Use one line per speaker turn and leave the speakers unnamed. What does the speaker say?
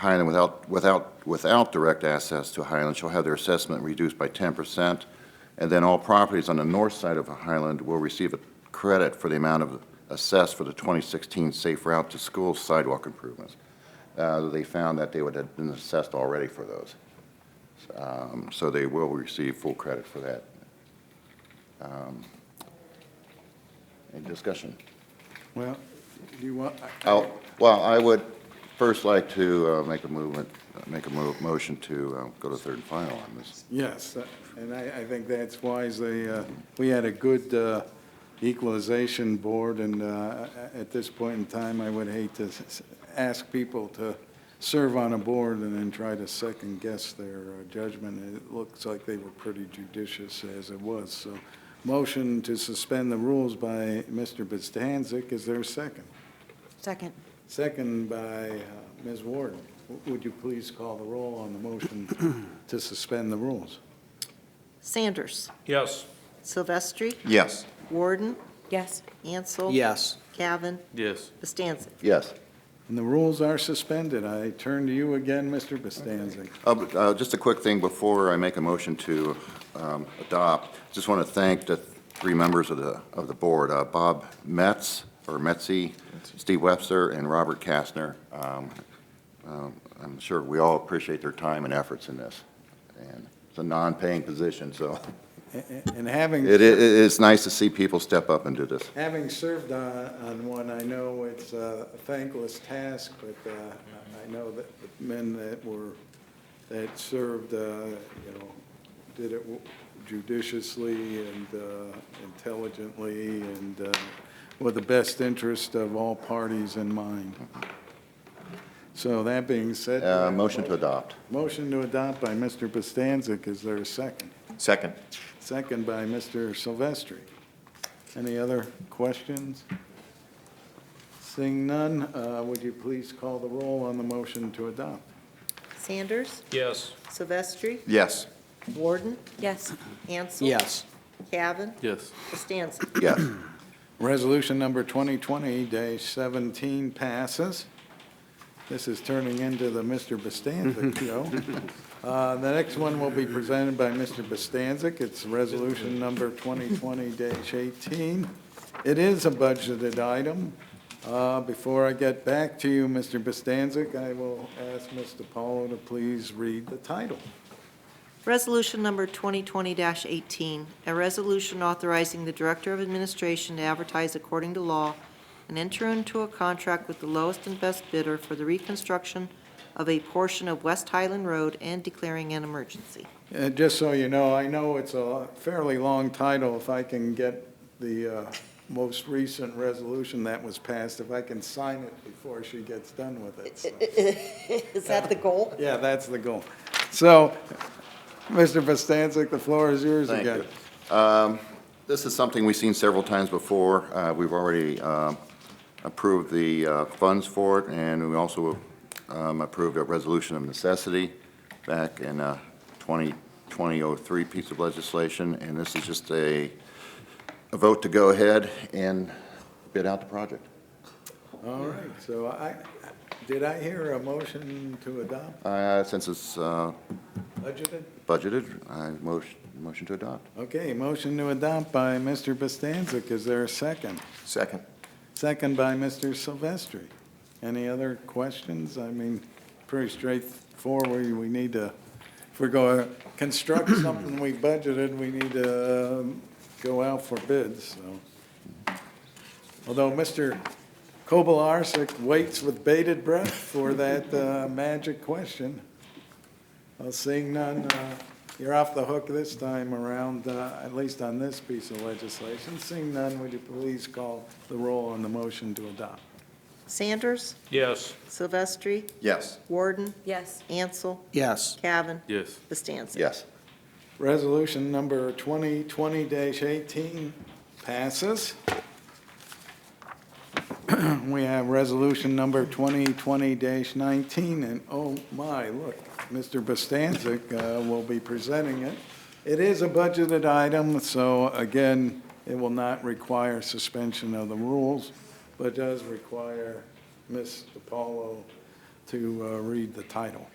Highland without, without, without direct access to Highland shall have their assessment reduced by ten percent, and then all properties on the north side of Highland will receive a credit for the amount of assessed for the twenty sixteen Safe Route to School sidewalk improvements. Uh, they found that they would have been assessed already for those. Um, so they will receive full credit for that. Um, Any discussion?
Well, do you want,
Oh, well, I would first like to uh, make a movement, make a mo- motion to uh, go to third and final on this.
yes, uh, and I, I think that's wise. They, uh, we had a good uh, equalization board, and uh, at this point in time, I would hate to s- s- ask people to serve on a board and then try to second-guess their uh, judgment. It looks like they were pretty judicious as it was, so motion to suspend the rules by Mr. Bostancic. Is there a second?
Second.
Second by uh, Ms. Ward. W- Would you please call the roll on the motion to suspend the rules?
Sanders.
Yes.
Silvestri.
Yes.
Warden.
Yes.
Ansel.
Yes.
Cavan.
Yes.
Bastancik.
Yes.
And the rules are suspended. I turn to you again, Mr. Bostancic.
Uh, but, uh, Just a quick thing before I make a motion to um, adopt. Just want to thank the three members of the, of the board, uh, Bob Metz, or Metzi, Steve Webster, and Robert Kastner. Um, um, I'm sure we all appreciate their time and efforts in this. And it's a non-paying position, so
A- a- And having.
it, it, it's nice to see people step up and do this.
Having served on, on one, I know it's a thankless task, but uh, I know that the men that were, that served, uh, you know, did it judiciously and uh, intelligently and uh, with the best interest of all parties in mind. So that being said.
Uh, Motion to adopt.
Motion to adopt by Mr. Bostancic. Is there a second?
Second.
Second by Mr. Silvestri. Any other questions? Seeing none, uh, would you please call the roll on the motion to adopt?
Sanders.
Yes.
Silvestri.
Yes.
Warden.
Yes.
Ansel.
Yes.
Cavan.
Yes.
Bastancik.
Yes.
Resolution number 2020-17 passes. This is turning into the Mr. Bostancic show. Uh, The next one will be presented by Mr. Bostancic. It's resolution number 2020-18. It is a budgeted item. Uh, Before I get back to you, Mr. Bostancic, I will ask Ms. DiPaolo to please read the title.
Resolution number 2020-18, a resolution authorizing the Director of Administration to advertise according to law and enter into a contract with the lowest and best bidder for the reconstruction of a portion of West Highland Road and declaring an emergency.
Uh, Just so you know, I know it's a fairly long title. If I can get the uh, most recent resolution that was passed, if I can sign it before she gets done with it. so-
Is that the goal?
Yeah, that's the goal. So, Mr. Bostancic, the floor is yours
Thank
again.
you. This is something we've seen several times before. Uh, We've already um, approved the uh, funds for it, and we also um, approved a resolution of necessity back in uh, 2020-03 piece of legislation, and this is just a a vote to go ahead and bid out the project.
All right, so I, did I hear a motion to adopt
Uh, Since it's uh,
budgeted?
budgeted, I motion motion to adopt.
Okay, motion to adopt by Mr. Bostancic. Is there a second?
Second.
Second by Mr. Silvestri. Any other questions? I mean, pretty straightforward. We need to, if we're going to construct something we budgeted, we need to um, go out for bids, so. Although Mr. Kobelarsek waits with bated breath for that uh, magic question. Well, Seeing none, uh, you're off the hook this time around, uh, at least on this piece of legislation. Seeing none, would you please call the roll on the motion to adopt?
Sanders.
Yes.
Silvestri.
Yes.
Warden.
Yes.
Ansel.
Yes.
Cavan.
Yes.
Bastancik.
Yes.
Resolution number 2020-18 passes. We have resolution number 2020-19, and oh my, look, Mr. Bostancic uh, will be presenting it. It is a budgeted item, so again, it will not require suspension of the rules, but does require Ms. DiPaolo to uh, read the title.